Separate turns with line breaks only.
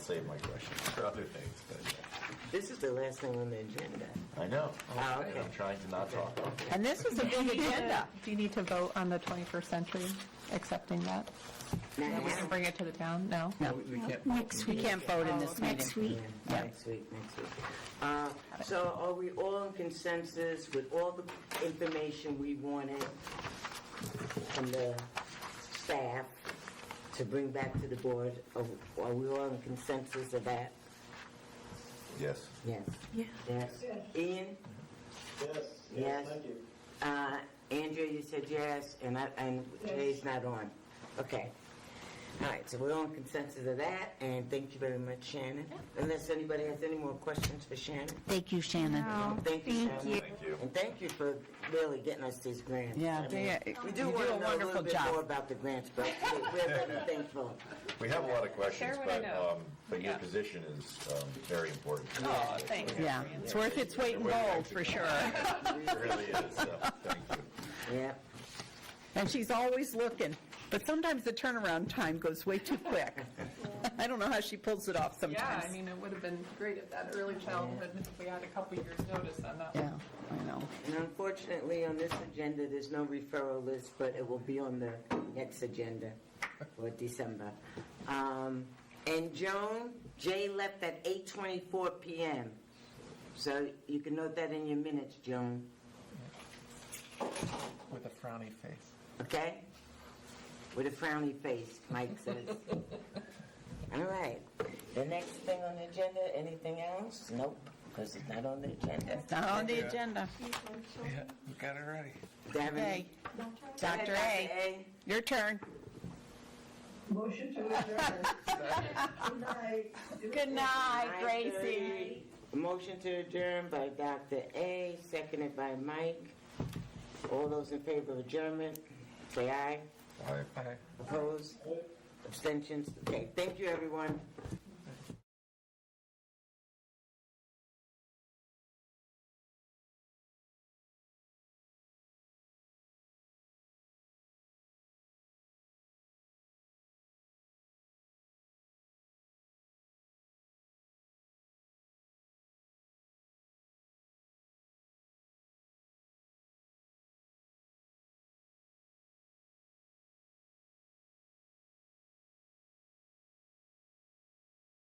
save my questions for other things, but
This is the last thing on the agenda.
I know.
Oh, okay.
I'm trying to not talk.
And this was a big agenda.
Do you need to vote on the 21st century, accepting that?
Now,
We can bring it to the town? No?
No,
Next
we
week.
can't vote in this meeting.
Next week.
Next week, next week. Uh, So are we all in consensus with all the information we wanted from the staff to bring back to the board? Are are we all in consensus of that?
Yes.
Yes.
Yeah.
Yes. Ian?
Yes,
Yes.
yes, thank you.
Uh, Andrea, you said yes, and I, and Jay's not on. Okay. All right, so we're on consensus of that, and thank you very much, Shannon. Unless anybody has any more questions for Shannon?
Thank you, Shannon.
No.
Thank you,
Thank
Shannon.
Thank you.
And thank you for really getting us these grants.
Yeah,
I mean,
yeah,
We
you
do
do
want to know
a
a little
wonderful
bit
job.
more about the grants, but we- we're very thankful.
We have a lot of questions,
Share what I
but,
know.
um, but your
Yeah.
position is um, very important.
Oh, thanks. Yeah, it's worth its weight in gold, for sure.
It really is, so, thank you.
Yeah.
And she's always looking, but sometimes the turnaround time goes way too quick. I don't know how she pulls it
Yeah,
off
I
sometimes.
mean, it would have been great at that early childhood, if we had a couple years' notice on that.
Yeah, I know.
And unfortunately, on this agenda, there's no referral list, but it will be on the next agenda for December. Um, And Joan, Jay left at 8:24 PM. So you can note that in your minutes, Joan,
with a frowny face.
okay? With a frowny face, Mike says. All right. The next thing on the agenda, anything else? Nope, because it's not on the agenda.
It's not on the agenda.
Yeah, we got it ready.
Devin?
Okay,
Go ahead,
Dr. A, your turn.
Motion to adjourn. Good night.
Good night,
Gracie. Motion to adjourn by Dr. A, seconded by Mike. All those in favor of adjournment, say aye.
All right.
Bye.
Opposed? Abstentions? Okay, thank you, everyone.